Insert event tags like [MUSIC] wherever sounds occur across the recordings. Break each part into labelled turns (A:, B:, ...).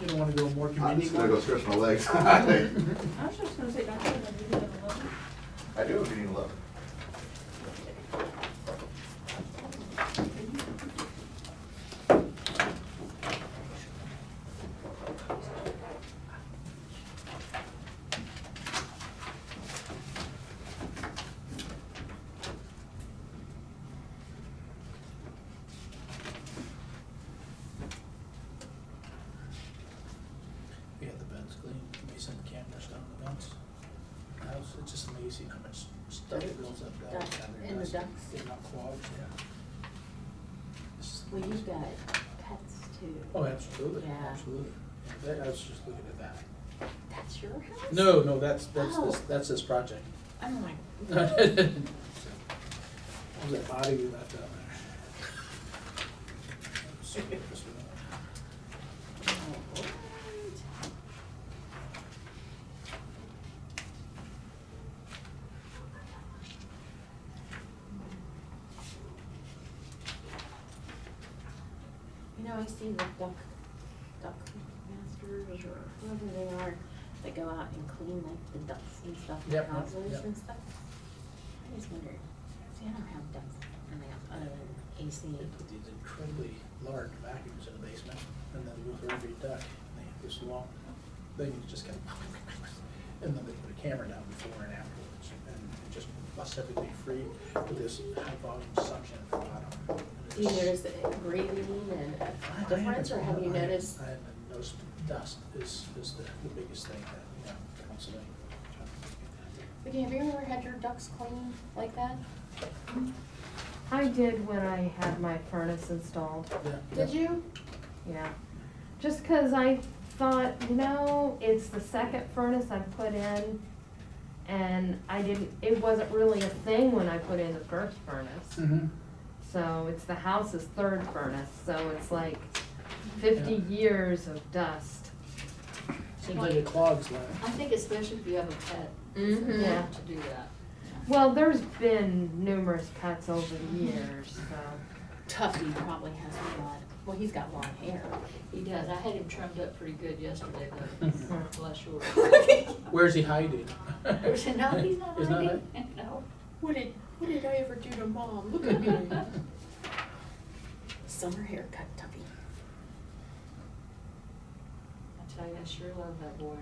A: didn't wanna do a more
B: I'm
A: convenient
B: just gonna go
A: one.
B: stretch my legs. [LAUGHS] I
C: I was just gonna say, don't you have a meeting at eleven?
B: do if you need love.
D: We had the beds cleaned, we sent cameras down the vents. House, it's just amazing how much stuff goes up down.
E: Ducks,
D: down there.
E: and the ducks.
D: They're not clogged, yeah. This is-
E: Well, you've got pets too.
D: Oh, absolutely,
E: Yeah.
D: absolutely. Yeah, that- I was just looking at that.
E: That's your house?
D: No, no, that's, that's, this
E: Oh.
D: that's this
E: [LAUGHS]
D: project.
E: I'm like,
D: [LAUGHS] So, What was that body we left out [LAUGHS] there?
E: oh, what? You know, I see the duck, duck masters or whoever they are, that go out and clean like the ducks and stuff, the
D: Yep,
E: houses
D: yep.
E: and stuff. I just wondered, see, I don't have ducks, in my house other than AC.
D: They put these incredibly large vacuums in the basement, and then they go through every duct, and they have this long, thing that just kind of, and then they put a camera down before and afterwards, and it just busts everything free with this high volume suction at the bottom.
E: Do you notice a breathing and
D: I- I
E: a difference, or have you
D: haven't- I-
E: noticed?
D: I haven't noticed, dust is, is the, the biggest thing that, you know, constantly.
E: Okay, have you ever had your ducks cleaned like that?
F: I did when I had my furnace installed,
D: Yeah,
E: Did
D: yeah.
E: you?
F: yeah. Just 'cause I thought, you know, it's the second furnace I put in, and I didn't, it wasn't really a thing when I put in the first furnace.
D: Mhm.
F: So it's the house's third furnace, so it's like fifty years of dust.
D: Seems like it clogs like.
G: I think especially if you have a pet, it's
F: Mhm.
G: important to do that.
F: Well, there's been numerous pets over the years, so.
E: Tuffy probably has a lot, well, he's got long [LAUGHS] hair.
G: He does, I had him trimmed up pretty good yesterday,
E: [LAUGHS]
G: though,
F: Mhm.
G: bless your.
D: Where's he hiding?
G: No, he's not
D: He's not
G: hiding, [LAUGHS] no.
E: What did, what did I ever do to mom? Look at me. [LAUGHS] Summer haircut, Tuffy.
G: I tell you, I sure love that boy.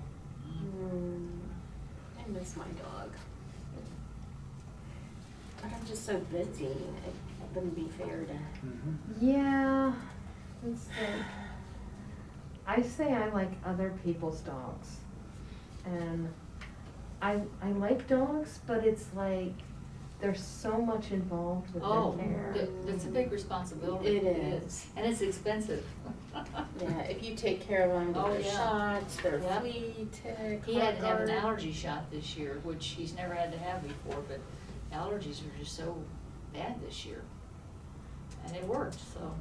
E: Mm, I miss my dog. But I'm just so busy, it wouldn't be fair to.
D: Mhm.
F: Yeah, it's like, I say I like other people's dogs. And I, I like dogs, but it's like, there's so much involved with
G: Oh,
F: their care.
G: th- that's a big responsibility.
E: It is.
G: And it's expensive. [LAUGHS]
E: Yeah, if you take care of them,
G: Oh,
E: get their
G: yeah.
E: shots, their
G: Yep.
E: flea, tick,
G: He had to have an
E: heartworm.
G: allergy shot this year, which he's never had to have before, but allergies are just so bad this year. And it worked, so.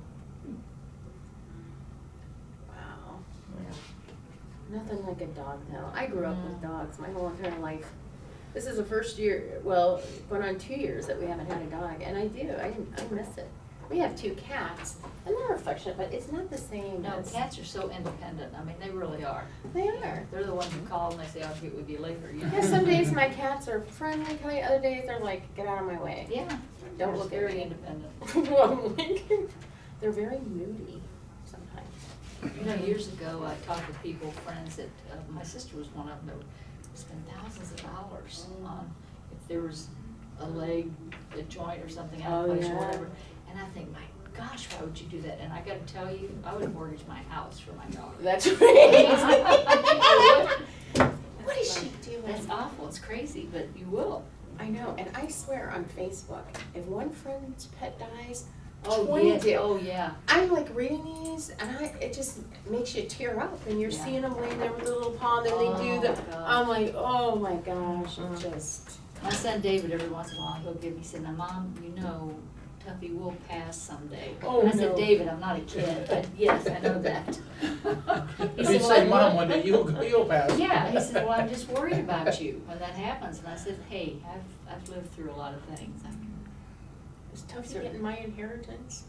E: Wow.
F: Yeah.
E: Nothing like a dog though. I grew up with
G: Mm.
E: dogs my whole entire life. This is the first year, well, going on two years that we haven't had a dog, and I do. I, I miss it. We have two cats, and they're affectionate, but it's not the same.
G: No,
E: as-
G: cats are so independent, I mean, they really are.
E: They are.
G: They're the ones who call and they say, I'll get with you later, you know?
E: Yeah, some days my cats are friendly, Kelly. Other days they're like, get out of my way.
G: Yeah.
E: Don't
G: They're
E: look at
G: Very
E: me.
G: independent.
E: [LAUGHS] I'm like, they're very moody sometimes.
G: You know, years ago, I talked to people, friends that, uh, my sister was one of them, that would spend thousands of dollars on, if there was a leg, a joint or something out of
E: Oh,
G: place or
E: yeah.
G: whatever. And I think, my gosh, why would you do that? And I gotta tell you, I would mortgage my house for my dog. [LAUGHS]
E: [LAUGHS] That's right. what is she doing?
G: That's awful, it's crazy, but you will.
E: I know, and I swear on Facebook, if one friend's pet dies,
G: Oh,
E: Twenty
G: yeah,
E: do.
G: oh, yeah.
E: I'm like reading these, and I it just makes you tear up, and you're
G: Yeah.
E: seeing them laying there with a little paw, and then they do
G: Oh,
E: the.
G: my gosh. Uh-huh.
E: I'm like, oh my gosh,
F: Mhm.
E: it just.
G: My son David, every once in a while, he'll give me, he said, now, mom, you know, Tuffy will pass someday.
E: Oh,
G: And I said,
E: no.
G: David, I'm not a kid,
E: [LAUGHS]
G: but yes, I
D: [LAUGHS]
G: know that. He
D: If
G: said,
D: you
G: "Well,
D: say
G: I'm
D: mom
G: not-"
D: one day, you'll, you'll pass.
G: Yeah, he said, well, I'm just worried about you
D: [LAUGHS]
G: when that happens, and I said, hey, I've, I've lived through a lot of things, I can
E: It's tough
G: Sure.
E: to get in my inheritance.